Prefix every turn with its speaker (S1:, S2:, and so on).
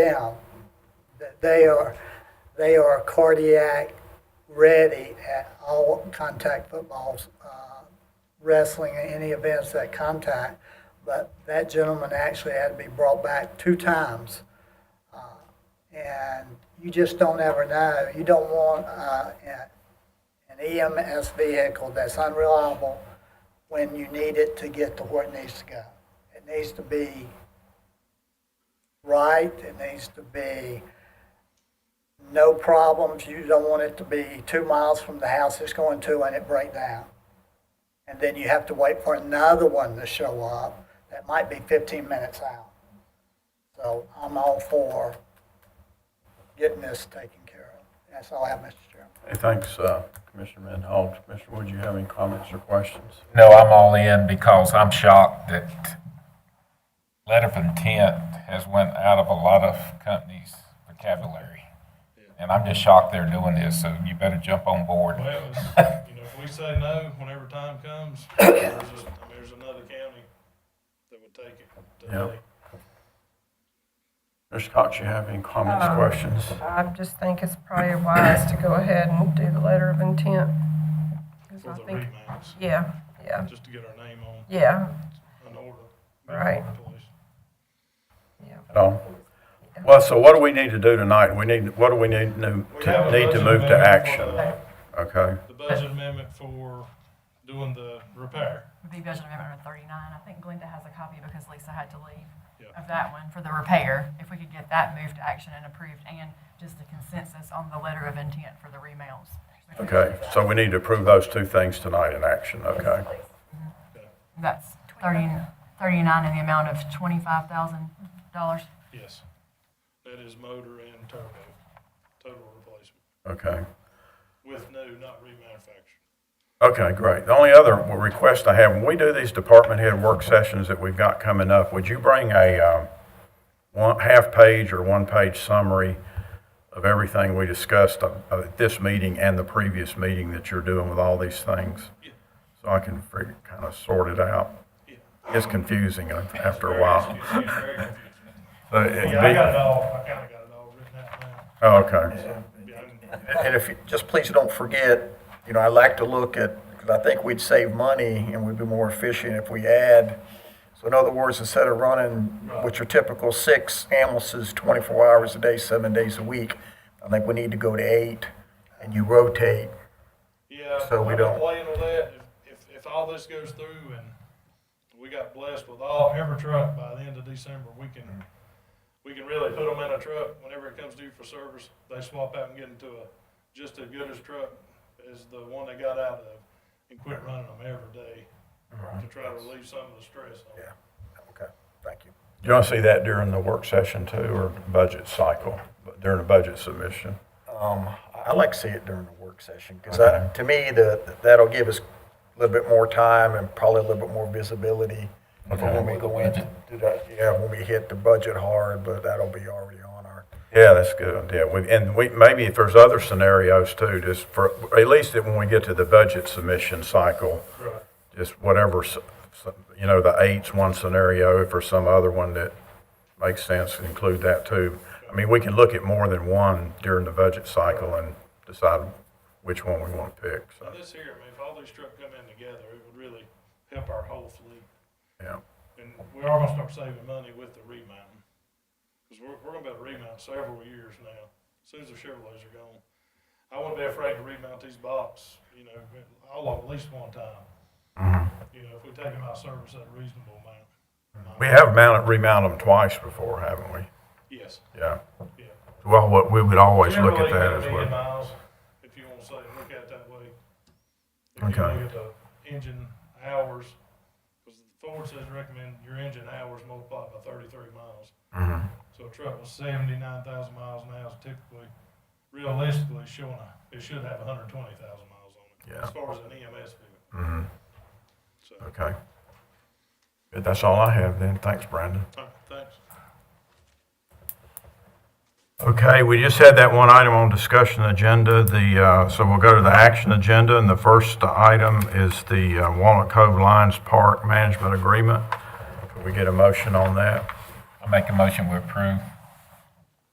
S1: down, that they are, they are cardiac ready at all contact footballs, uh, wrestling and any events that contact. But that gentleman actually had to be brought back two times. Uh, And you just don't ever know. You don't want uh, a- an EMS vehicle that's unreliable when you need it to get to where it needs to go. It needs to be right, it needs to be no problems, you don't want it to be two miles from the house it's going to and it break down. And then you have to wait for another one to show up, that might be fifteen minutes out. So I'm all for getting this taken care of. That's all I have, Mr. Chairman.
S2: Hey, Thanks, uh, Commissioner Manhall. Commissioner Wood, you have any comments or questions?
S3: No, I'm all in because I'm shocked that letter of intent has went out of a lot of companies' vocabulary. And I'm just shocked they're doing this, so you better jump on board.
S4: Well, it's- you know, if we say no, whenever time comes, there's, a- I mean, there's another county that would take it.
S2: Yeah.
S4: today.
S2: Mr. Cox, you have any comments,
S5: Um,
S2: questions?
S5: I just think it's probably wise to go ahead and do the letter of intent. 'Cause
S4: For
S5: I
S4: the
S5: think,
S4: remands,
S5: yeah, yeah,
S4: just to get our name on
S5: yeah,
S4: an order.
S5: Right.
S4: Police.
S2: At all? Well, so what do we need to do tonight? We need, what do we need, to-
S4: We
S2: to
S4: have a
S2: need to
S4: budget
S2: move to
S4: amendment for
S2: action?
S4: the-
S2: Okay,
S4: The budget amendment for doing the repair.
S6: would be budget amendment thirty-nine. I think Glenda has a copy because Lisa had to leave
S4: Yeah.
S6: of that one for the repair. If we could get that moved to action and approved and just a consensus on the letter of intent for the remails. We could
S2: okay.
S6: do that.
S2: So we need to approve those two things tonight in action, okay?
S6: That's 30 39 in the amount of twenty-five thousand dollars.
S4: Yes. That is motor and turbo, total replacement,
S2: Okay.
S4: with new, not remanufactured.
S2: Okay, great. The only other request I have, when we do these department head work sessions that we've got coming up, would you bring a um, one, half-page or one-page summary of everything we discussed uh, at this meeting and the previous meeting that you're doing with all these things?
S4: Yeah.
S2: So I can figure, kind of sort it out.
S4: Yeah.
S2: It's confusing after a while. But it'd
S4: Yeah, I got it
S2: be-
S4: all, I kinda got it all written out now.
S2: Oh, okay.
S4: Yeah, I can-
S7: And if, you just please don't forget, you know, I like to look at, because I think we'd save money and we'd be more efficient if we add. So in other words, instead of running, which are typical six ambulances, 24 hours a day, seven days a week, I think we need to go to eight and you rotate.
S4: Yeah.
S7: So we
S4: I'm
S7: don't-
S4: Playing with that, if, if, if all this goes through and we got blessed with all, every truck by the end of December, we can, we can really put them in a truck whenever it comes due for service. They swap out and get into a, just as good as truck as the one they got out of and quit running them every day to try to relieve some of the stress on them.
S7: Okay, thank you.
S2: Do you want to see that during the work session too, or budget cycle, during the budget submission?
S7: Um, I- I like to see it during the work session, because to me, the, that'll give us a little bit more time and probably a little bit more visibility for when we go in, to do that. yeah, when we hit the budget hard, but that'll be already on our,
S2: Yeah, that's a good idea. We- And we, maybe if there's other scenarios too, just for, at least that when we get to the budget submission cycle,
S4: Right.
S2: just whatever, s- s- you know, the eight's one scenario, if there's some other one that makes sense, include that too. I mean, we can look at more than one during the budget cycle and decide which one we want to pick,
S4: Now
S2: so,
S4: this here, I mean, if all these trucks come in together, it would really help our whole fleet.
S2: yeah.
S4: And we are gonna start saving money with the remount. Cause we're, we're gonna be able to remount several years now, as soon as the Chevrolets are gone. I wouldn't be afraid to remount these box, you know, all of at least one time. You know, if we take them out of service at a reasonable amount.
S2: Mm-hmm. We have mounted, remounted them twice before, haven't we?
S4: Yes,
S2: Yeah.
S4: yeah.
S2: Well, what- we would always look at
S4: Generally,
S2: that
S4: about
S2: as
S4: a million
S2: well.
S4: miles, If you wanna say, look at it that way. If you
S2: Okay.
S4: look at the engine hours, cause Ford says recommend your engine hours multiplied by thirty-three miles.
S2: Mhm.
S4: So a truck with seventy-nine thousand miles now is typically, realistically showing a, it should have hundred and twenty thousand miles on it.
S2: Yeah.
S4: As far as an E EMS vehicle,
S2: Mhm.
S4: so,
S2: Okay. Good, that's all I have then. Thanks, Brandon.
S4: all right, thanks.
S2: Okay, we just had that one item on discussion agenda, the, uh, so we'll go to the action agenda, and the first item is the uh, Walnut Cove Lions Park Management Agreement. Could we get a motion on that?
S3: I make a motion we approve.